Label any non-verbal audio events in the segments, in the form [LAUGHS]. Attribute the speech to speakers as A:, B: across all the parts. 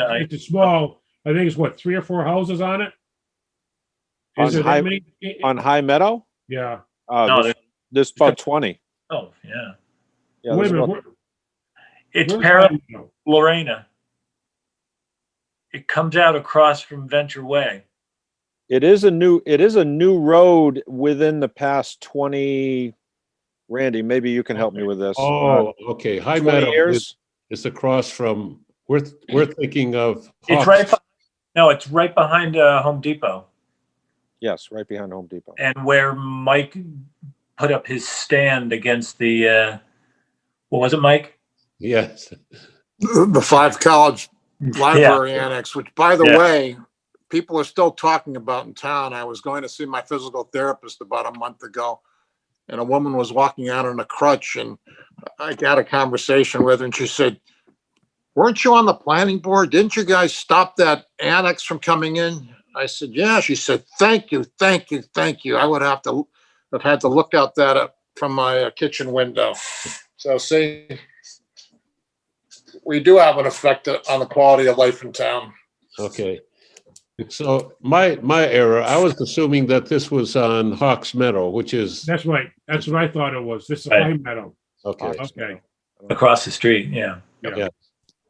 A: I-
B: It's small. I think it's what, three or four houses on it? Is
C: On
B: it that
C: High-
B: many?
C: on High Meadow?
B: Yeah.
A: No,
C: Uh, there's,
A: there's-
C: there's about twenty.
A: oh, yeah.
C: Yeah,
B: Wait
C: there's
B: a minute.
C: about-
B: where-
A: It's
B: where's
A: parallel
B: High Meadow?
A: Lorena. It comes out across from Venture Way.
C: It is a new, it is a new road within the past twenty. Randy, maybe you can help me with this. Uh,
D: Oh, okay. High
C: Twenty
D: Meadow is,
C: years?
D: is across from, we're, th- we're thinking of.
A: It's right,
D: Hawks.
A: be- no, it's right behind uh, Home Depot
C: Yes, right behind Home Depot.
A: and where Mike put up his stand against the, uh, what was it, Mike?
D: Yes,
E: the the five college library annex, which by the
A: Yeah.
E: way, people are still talking about in town. I was going to see my physical therapist about a month ago. And a woman was walking out on a crutch and I got a conversation with her and she said, weren't you on the planning board? Didn't you guys stop that annex from coming in? I said, yeah. She said, thank you, thank you, thank you. I would have to, have had to look out that up from my uh, kitchen window. So see, we do have an effect on the quality of life in town.
D: okay. So my, my error, I was assuming that this was on Hawks Meadow, which is,
B: That's right. That's what I thought it was. This is
A: Right.
B: High Meadow.
D: okay.
B: Okay.
A: Across the street, yeah.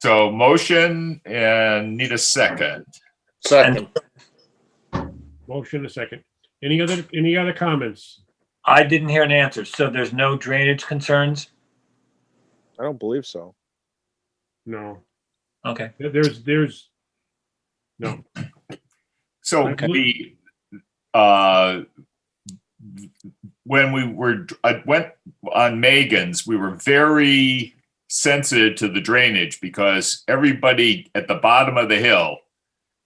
F: So motion and need a second.
E: Second,
B: Motion a second. Any other, any other comments?
A: I didn't hear an answer, so there's no drainage concerns?
C: I don't believe so.
B: No.
A: Okay,
B: There- There's, there's,
F: So
B: Okay.
F: we, uh, when we were, I went on Megan's, we were very sensitive to the drainage because everybody at the bottom of the hill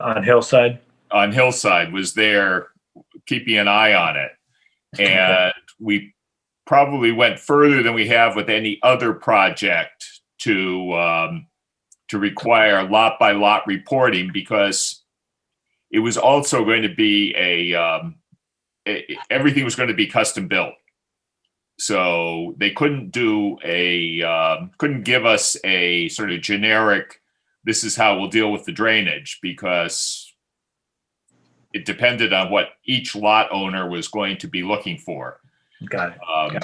A: on Hillside?
F: on Hillside was there keeping an eye on it. And we probably went further than we have with any other project to, um, to require lot by lot reporting because it was also going to be a, um, e- everything was going to be custom built. So they couldn't do a, um, couldn't give us a sort of generic, this is how we'll deal with the drainage because it depended on what each lot owner was going to be looking for.
A: Got it.
F: Um,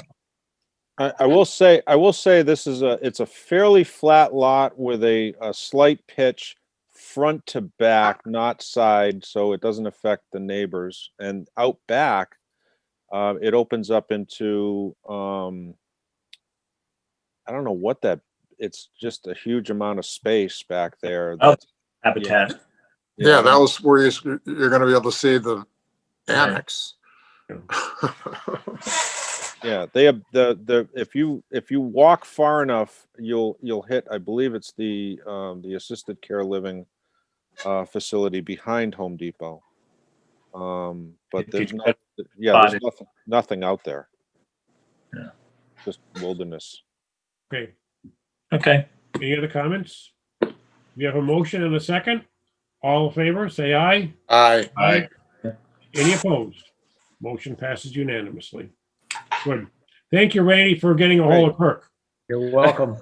C: I, I will say, I will say this is a, it's a fairly flat lot with a, a slight pitch front to back, not side, so it doesn't affect the neighbors. And out back, uh, it opens up into, um, I don't know what that, it's just a huge amount of space back there.
A: Oh,
C: that's-
A: Habitat.
E: yeah, that was where you- you're gonna be able to see the annex.
C: Yeah, they have the, the, if you, if you walk far enough, you'll, you'll hit, I believe it's the, um, the assisted care living uh, facility behind Home Depot. Um, but
A: Did
C: there's
A: you
C: not, yeah,
A: spotted?
C: there's nothing, nothing out there.
A: Yeah.
C: Just wilderness.
B: okay.
A: Okay,
B: Any other comments? We have a motion and a second. All in favor, say aye.
E: Aye,
F: I,
B: Any opposed? Motion passes unanimously. Good. Thank you, Randy, for getting a hold of Kirk.
G: You're welcome.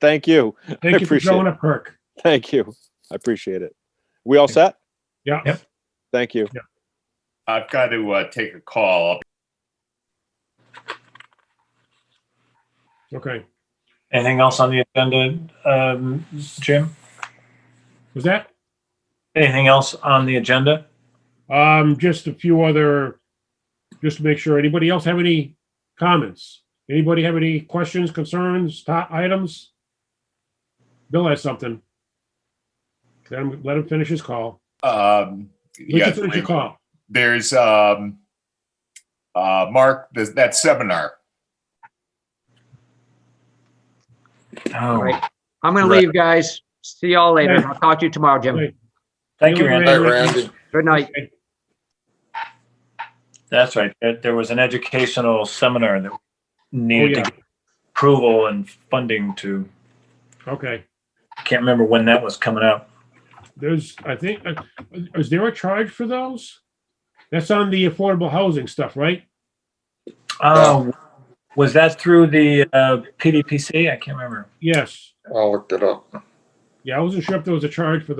C: Thank you,
B: Thank you for
C: appreciate
B: showing
C: it.
B: up, Kirk.
C: thank you. I appreciate it. We all set?
B: Yeah.
A: Yep.
C: Thank you.
F: I've got to uh, take a call.
B: Okay.
A: anything else on the agenda, um, Jim?
B: Was that?
A: Anything else on the agenda?
B: Um, just a few other, just to make sure, anybody else have any comments? Anybody have any questions, concerns, top items? Bill has something. Let him, let him finish his call.
F: Um,
B: Let you
F: yeah,
B: finish your call.
F: there's um, uh, Mark, there's that seminar.
G: All
A: Oh,
G: right. I'm gonna leave, guys. See y'all later. I'll talk to you tomorrow, Jim.
B: Right.
A: thank you,
E: aye,
A: Randy.
E: [LAUGHS] Randy.
G: Good night.
A: That's right. There, there was an educational seminar that
B: Oh,
A: needed to
B: yeah,
A: get approval and funding to,
B: okay.
A: can't remember when that was coming up.
B: There's, I think, uh, is there a charge for those? That's on the affordable housing stuff, right?
A: Oh, was that through the, uh, PDPC? I can't remember.
B: Yes.
E: I'll look it up.
B: Yeah, I wasn't sure if there was a charge for